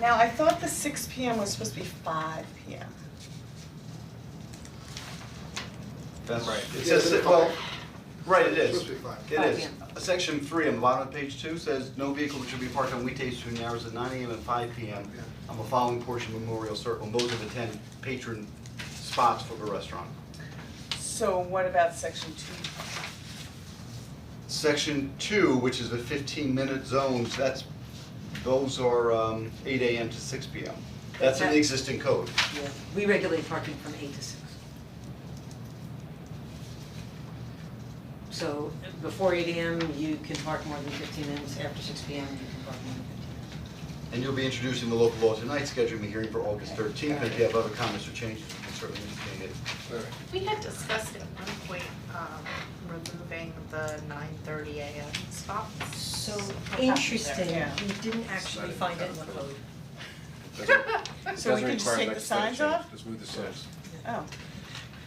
Now, I thought the six P M was supposed to be five P M. That's right. It Yeah, says, it's well, fine. right, it It's is. supposed to be five. It Five is. Uh, p.m. Section three on the bottom of page two says, no vehicle should be parked on weekdays between the hours of nine AM and five PM Yeah. on the following portion of Memorial Circle, and those are the ten patron spots for the restaurant. So what about section two? Section two, which is the fifteen minute zones, that's, those are um eight AM to six PM. That's in the Okay. existing code. Yeah, we regulate parking from eight to six. So before eight AM, you can park more than fifteen minutes, after six PM, you can park more than fifteen minutes. And you'll be introducing the local law tonight, scheduling the hearing for August thirteenth, if you have other comments or changes, you can certainly indicate it. Alright. We had discussed at one point, um, removing the nine thirty AM stops. So What happened there? interesting, Yeah. we didn't actually Decided find to it in the cut it. code. So we can just take the signs off? Doesn't require legislative change, just move the signs. Oh,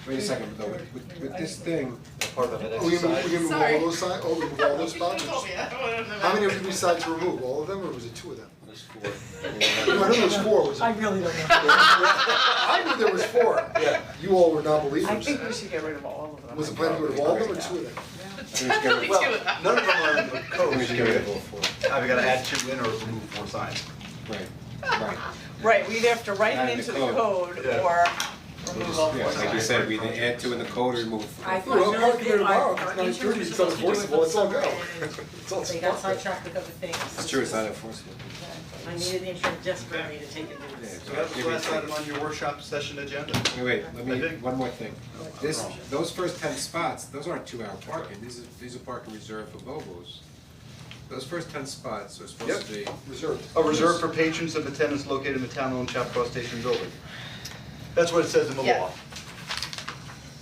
Wait a second, though, with with with this thing, Part of that Oh, we remove, exercise. we remove all Sorry. those signs, oh, we remove all those spots? How many did we decide to remove, all of them, or was it two of them? I know there was four, was it? I really don't know. I knew there was four. Yeah. You all were I non-believers. think we should get rid of all of them. Was the plan to get rid of all of them or two of them? Only two of them. None of them are in the code. we should get rid of all four. Either gotta add two in or remove four signs. Right, right. Right, we'd have to write Add it into the the code. code Yeah. or remove all Yeah, four like you signs. said, we didn't add two in the code or move. I four. thought- Well, I'll park there tomorrow, Our- our it's nine thirty, interns it's were supposed to unenforceable, do it for it's all summer, go. and It's all They got sparked. sidetracked with other things. It's true, it's not enforceable. I needed the insurance desperately to take it to this. So that was the last item on your workshop session agenda. Wait, wait, I let me, think- one more thing. I'm This, wrong. those first ten spots, those aren't two-hour parking, these are, these are parking reserved for Bobos. Those first ten spots are supposed to be, Reserved. A reserve for patrons of the tenants located in the town-owned Chapco Station building. That's what it says in the Yeah. law.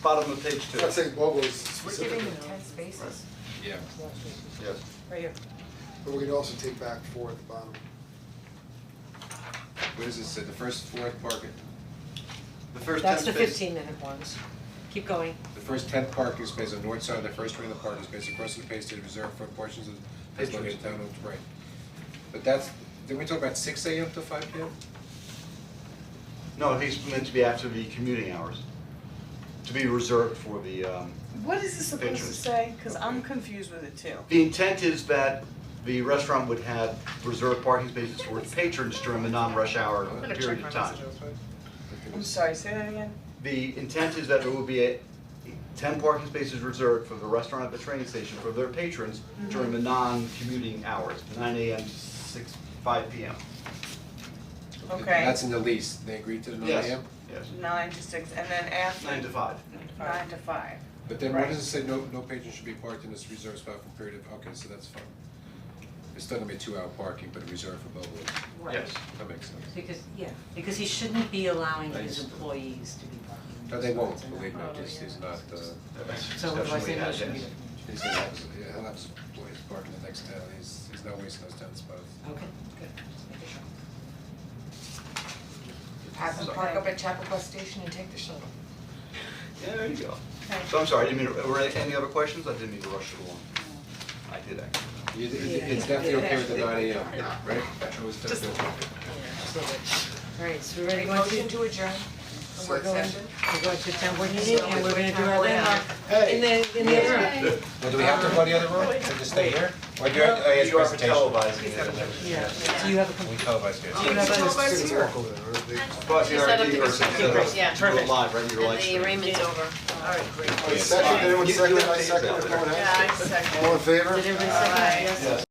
Bottom of page two. I'm not saying Bobo's We're giving specifically, them ten spaces, yeah, Yes. right here. but we can also take back four at the bottom. what does it say, the first fourth parking, The first ten That's the spaces. fifteen minute ones. Keep going. the first ten parking spaces on the north side of the first ring of the parking space across from the Bay State reserved for portions of the Patrons. located town owned right. But that's, did we talk about six AM to five PM? No, I think it's meant to be after the commuting hours, to be reserved for the, um, What is this supposed to Patrons. say? Cause I'm confused with it too. the intent is that the restaurant would have reserved parking spaces for its patrons during the non-rush hour I'm gonna check period my of time. messages. I'm sorry, say that again? The intent is that there will be a, ten parking spaces reserved for the restaurant at the train station for their patrons Mm-hmm. during the non-commuting hours, nine AM to six, five PM. Okay, That's in the lease, they agreed to the nine AM? Yes, yes, nine to six and then after. nine to five. Nine to five. But then why Right. does it say no, no patron should be parked in this reserved spot for a period of, okay, so that's fine. It's still gonna be two hour parking, but reserved for Bellwood, Right. Yes. that makes sense. Because, yeah, because he shouldn't be allowing his employees to be parking. No, they won't, in believe me, that. this is not, uh, So otherwise they Exception we know had, it shouldn't be. yes. he's gonna have, his- he'll have his employees parking the next town, he's, he's not wasting those ten spots. Okay, good, just making sure. Have them Sorry. park up at Chapel Station and take the shuttle. Yeah, there you go. So I'm sorry, I didn't mean, to- were there any other questions? I didn't mean to rush it along. I did actually. You- it- It's definitely okay with the nine AM, right? It was Just- definitely okay. Alright, so we're ready to go Motion to, to adjourn. The work Second. session. we're going to town board meeting and we're gonna do our Hey. landmark in the, in the other room. Well, do we have to go to the other room, to just stay here? Or do you have, oh, yes, You are presentation. televising it. Yeah, so you have a, We com- televised it. do you have a? Just walk over there, right? They- But you're set up already- the you're conference. set up. Yeah. Do it live, right, your live And the stream. arraignment's over. Oh, Second, anyone You- you second, have I to- second, if no one has. Yeah, I second. All in favor? Did everybody second? Aye. Yes. Yes.